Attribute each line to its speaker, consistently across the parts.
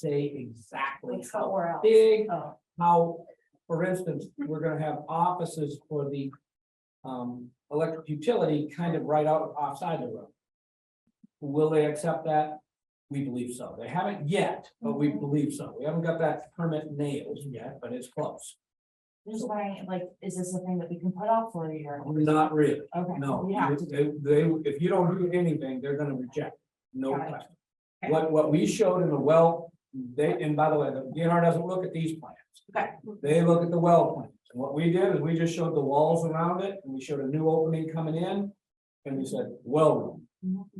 Speaker 1: say exactly
Speaker 2: Like
Speaker 1: how
Speaker 2: somewhere else.
Speaker 1: big,
Speaker 2: Oh,
Speaker 1: how, for instance, we're gonna have offices for the um, electric utility kind of right out offside the road. Will they accept that? We believe so. They haven't yet, but we
Speaker 2: Mhm.
Speaker 1: believe so. We haven't got that permit nailed yet, but it's close.
Speaker 2: just wondering, like, is this a thing that we can put off for a year?
Speaker 1: Not really,
Speaker 2: Okay.
Speaker 1: no.
Speaker 2: We have to do.
Speaker 1: They, they- if you don't do anything, they're gonna reject, no
Speaker 2: Got it.
Speaker 1: question.
Speaker 2: Okay.
Speaker 1: What, what we showed in the well, they, and by the way, the DNR doesn't look at these plans.
Speaker 2: Okay.
Speaker 1: They look at the well plans. And what we did is we just showed the walls around it and we showed a new opening coming in. And we said, well room.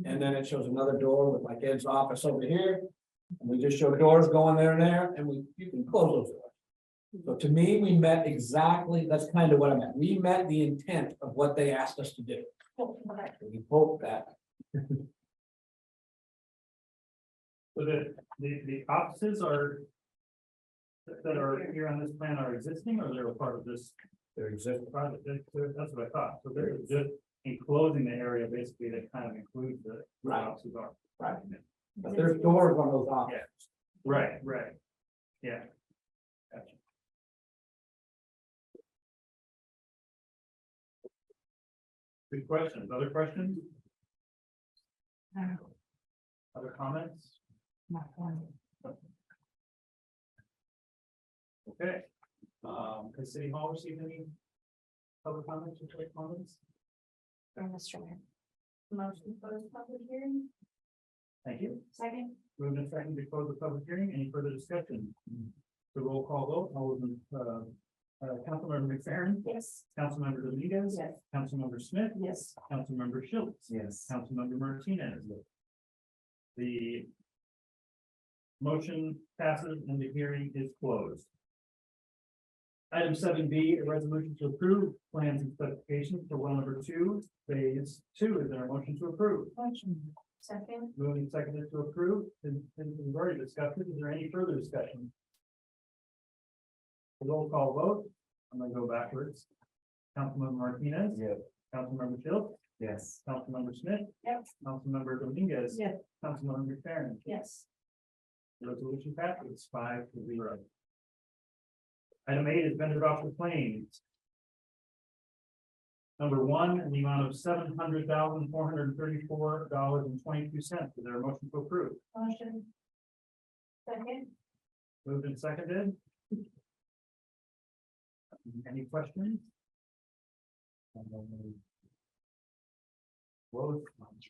Speaker 1: And then it shows another door with like Ed's office over here. And we just show doors going there and there and we, you can close those doors. So to me, we met exactly, that's kind of what I meant. We met the intent of what they asked us to do.
Speaker 2: Okay.
Speaker 1: And We hope that
Speaker 3: So the, the, the offices are. that- That are here on this plan are existing or they're a part of this
Speaker 1: there exists.
Speaker 3: project, That- that- that's what I thought, so they're just enclosing the area basically that kind of includes the.
Speaker 1: Right.
Speaker 3: Offices are.
Speaker 1: Right. But there's doors on those offices.
Speaker 3: Right, right. Yeah. Gotcha. Good questions, other questions,
Speaker 2: No,
Speaker 3: other comments?
Speaker 2: not one.
Speaker 3: Okay, um, has City Hall received any public comments or quick comments?
Speaker 2: Or Mr. Mayor. Motion for the public hearing,
Speaker 3: Thank you.
Speaker 2: second?
Speaker 3: Moved and seconded to close the public hearing. Any further discussion? The roll call vote, all of them, uh, uh, Councilmember McFerrin,
Speaker 2: Yes.
Speaker 3: Councilmember Dominguez,
Speaker 2: Yes.
Speaker 3: Councilmember Smith,
Speaker 2: Yes.
Speaker 3: Councilmember Schultz,
Speaker 1: Yes.
Speaker 3: Councilmember Martinez. The motion passes and the hearing is closed. Item seven B, a resolution to approve plans and specifications for well number two, phase two. Is there a motion to approve?
Speaker 2: Motion. Second?
Speaker 3: Moving and seconded to approve, and, and we've already discussed it, is there any further discussion? Roll call vote, I'm gonna go backwards. Councilmember Martinez.
Speaker 1: Yeah.
Speaker 3: Councilmember Phil,
Speaker 1: Yes.
Speaker 3: Councilmember Smith,
Speaker 2: Yes.
Speaker 3: Councilmember Dominguez.
Speaker 2: Yes.
Speaker 3: Councilmember McFerrin,
Speaker 2: Yes.
Speaker 3: resolution passes five to zero. Item eight is vendor voucher claims. Number one, in the amount of seven hundred thousand, four hundred and thirty-four dollars and twenty-two cents, is there a motion to approve?
Speaker 2: Motion. Second?
Speaker 3: Moved and seconded. Any questions? What, what,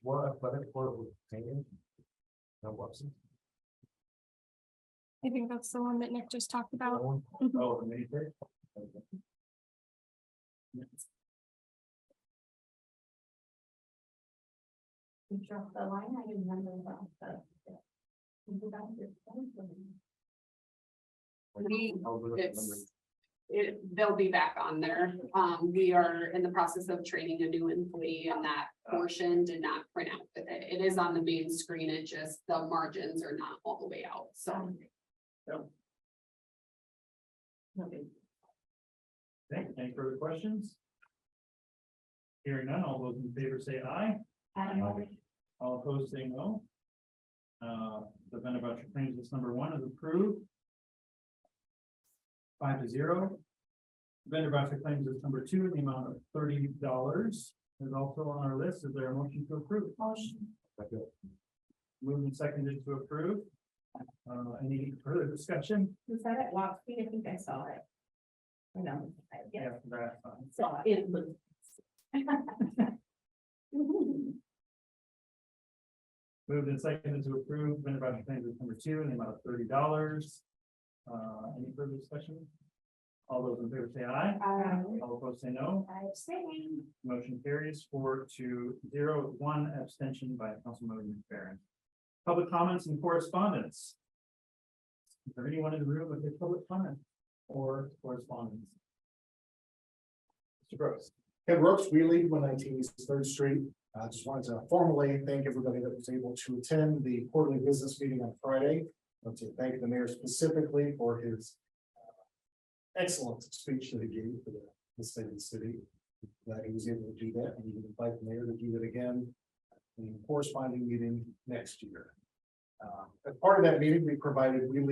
Speaker 3: what, what was taken? No, what's it?
Speaker 4: I think that's the one that Nick just talked about.
Speaker 3: Oh, the mini fridge?
Speaker 2: You dropped the line, I didn't remember about the. You got your phone for me.
Speaker 5: We,
Speaker 3: Oh, the-
Speaker 5: it's, it, they'll be back on there. Um, we are in the process of training a new employee and that portion did not print out with it. It is on the main screen, it just, the margins are not all the way out, so.
Speaker 2: Okay.
Speaker 3: Okay, any further questions? Hearing none, all those in favor say aye,
Speaker 2: Adam,
Speaker 3: all opposed say no. Uh, the vendor voucher claims list number one is approved. Five to zero. Vendor voucher claims list number two, in the amount of thirty dollars is also on our list. Is there a motion to approve?
Speaker 2: motion.
Speaker 3: Moved and seconded to approve. Uh, any further discussion?
Speaker 2: Was that at Lock Speed? I think I saw it. I know, I, yeah,
Speaker 3: That's fine.
Speaker 2: saw it.
Speaker 3: Moved and seconded to approve vendor voucher claims list number two in the amount of thirty dollars. Uh, any further discussion? All those in favor say aye.
Speaker 2: Um,
Speaker 3: All opposed say no.
Speaker 2: I abstain.
Speaker 3: Motion carries four to zero, with one abstention by Councilmember McFerrin. Public comments and correspondence. Is there anyone in the room with a public comment or correspondence? Mr. Gross.
Speaker 6: Hey, Brooks Wheelie, one nineteen East Third Street. I just wanted to formally thank everybody that was able to attend the quarterly business meeting on Friday. I want to thank the mayor specifically for his uh, excellent speech that he gave for the- the state and city. That he was able to do that, and he invite the mayor to do that again in the corresponding meeting next year. Uh,
Speaker 1: Um, As part of that meeting, we provided, we lead